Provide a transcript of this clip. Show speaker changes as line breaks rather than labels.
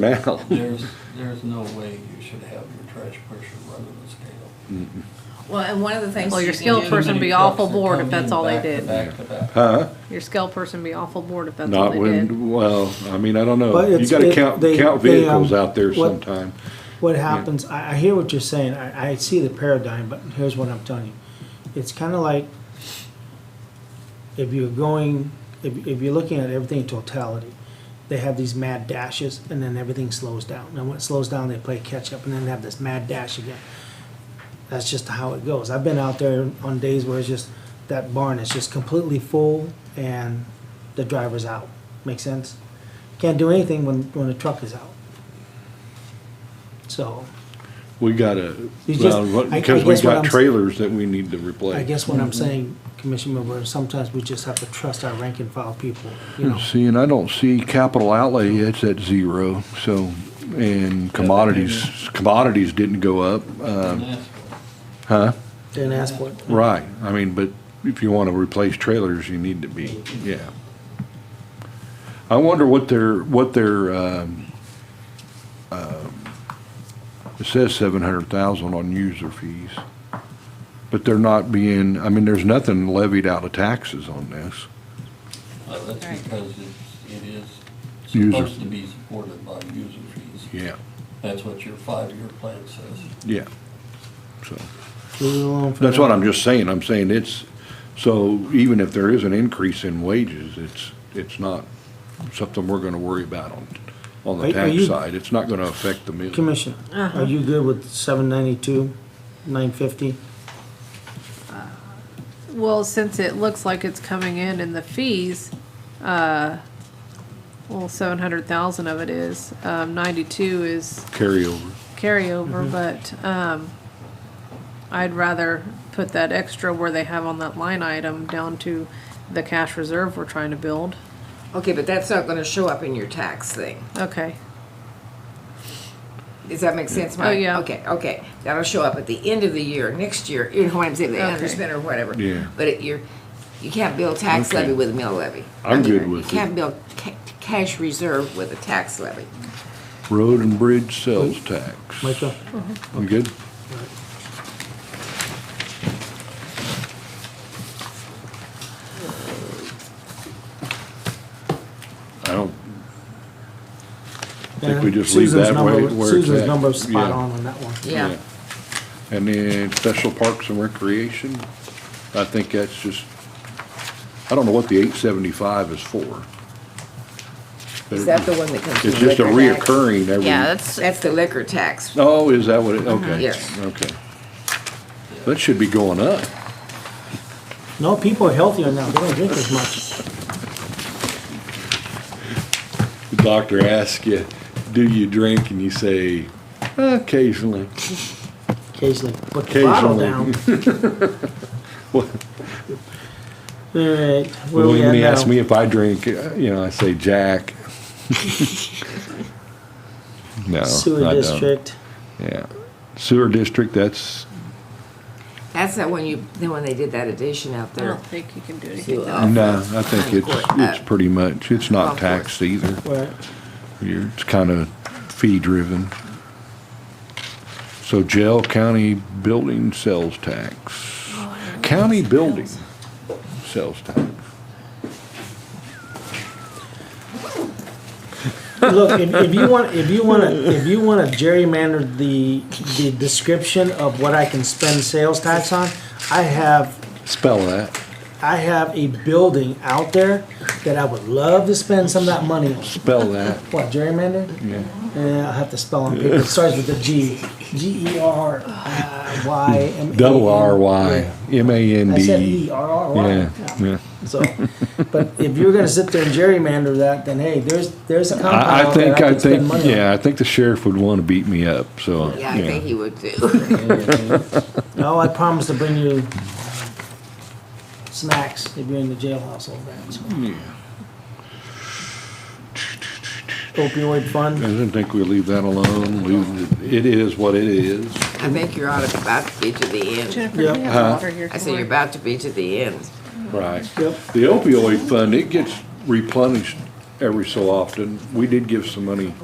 now.
There's, there's no way you should have your trash pressure running the scale.
Well, and one of the things.
Well, your
you can
skilled
do-
Too
person
many
be awful
trucks that
bored
come
if that's
in
all they
back to
did.
Back to back.
Huh?
Your scale person be awful bored if that's all
Not
they did.
when, well, I mean, I don't know.
But
You
it's-
gotta
it-
count,
they-
count
they,
vehicles
um,
out there
what-
sometime.
What happens, I, I hear what you're saying, I, I see the paradigm, but here's what I'm telling you. It's kinda like if you're going, if, if you're looking at everything in totality, they have these mad dashes and then everything slows down. And when it slows down, they play catch up and then they have this mad dash again. That's just how it goes. I've been out there on days where it's just, that barn is just completely full and the driver's out. Make sense? Can't do anything when, when the truck is out. So,
We gotta,
You just-
well, what-
I- I
because we
guess what
got
I'm-
trailers that we need to replace.
I guess what I'm saying, Commissioner, is sometimes we just have to trust our rank and file people, you know.
See, and I don't see capital outlay, it's at zero, so, and commodities, commodities didn't go up,
And
um,
that's
huh?
Didn't ask for it.
Right, I mean, but if you wanna replace trailers, you need to be, yeah. I wonder what their, what their, um, um, it says seven hundred thousand on user fees. But they're not being, I mean, there's nothing levied out of taxes on this.
Well, uh, that's
Right.
because it's, it is
User-
supposed to be supported by user fees.
Yeah,
That's what your five-year plan says.
yeah, so.
Leave it alone for
That's
now.
what I'm just saying, I'm saying it's, so even if there is an increase in wages, it's, it's not something we're gonna worry about on, on
Are- are
the tax
you-
side, it's not gonna affect the mill.
Commissioner, are you good with seven ninety-two, nine fifty?
Well, since it looks like it's coming in in the fees, uh, well, seven hundred thousand of it is, um, ninety-two is
Carryover,
carryover, but, um, I'd rather put that extra where they have on that line item down to the cash reserve we're trying to build.
Okay, but that's not gonna show up in your tax thing.
Okay,
Does that make sense,
Oh,
Mike?
yeah.
Okay, okay. That'll show up at the end of the year, next year, you know what I'm saying, the
Okay.
underspend or whatever.
Yeah.
But it, you're, you can't build tax
Okay.
levy with a mill levy.
I'm
I mean,
good with it.
You can't build ca- cash reserve with a tax levy.
road and bridge sales tax.
Michael,
You good? I don't, think we
And
just leave
Susan's
that
number
way-
was-
where it's
Susan's
at.
number's spot
Yeah.
on on that one.
Yeah.
And then special parks and recreation, I think that's just, I don't know what the eight seventy-five is for.
Is that the one that comes from
It's just a
liquor tax?
reoccurring every.
yeah, that's,
That's the liquor tax.
Oh, is that what it, okay.
Uh-huh. Yes.
Okay. That should be going up.
No, people are healthier now, they don't drink as much.
The doctor asks you, do you drink? And you say, occasionally.
Occasionally, put the bottle down.
Occasionally. Well,
All right, where we
When
at
he asks
now?
me if I drink, uh, you know, I say Jack. No,
Sewer
I don't.
district,
Yeah. Sewer district, that's,
That's that one you, the one they did that addition out
I
there.
don't think you can do
So,
anything.
uh,
no, I think it's, it's pretty much, it's not
Of course.
taxed either.
where,
You're, it's kind of fee driven. So jail county building sales tax, county building sales tax.
Look, if, if you want, if you want to, if you want to gerrymander the the description of what I can spend sales tax on, I have
Spell that.
I have a building out there that I would love to spend some of that money on.
Spell that.
What gerrymander?
Yeah.
Yeah, I have to spell on paper. It starts with a G. G E R uh, Y M. A N.
Double R Y M A N
I
D.
said E R R Y.
Yeah, yeah.
So, but if you're gonna sit there and gerrymander that, then hey, there's there's a compound
I, I
out there
think, I
could spend
think,
money on.
yeah, I think the sheriff would want to beat me up, so.
Yeah, I think he would too.
No, I promise to bring you uh, snacks if you're in the jailhouse all that. so. Opioid
I
fund,
didn't think we leave that alone, leave, it- it is what it is.
I think you're on about to be to the end.
Jennifer, do you
Yep.
Uh-huh.
have water here
I said you're
somewhere?
about to be to the end.
Right.
yep.
The opioid fund, it gets replenished every so often. We did give some money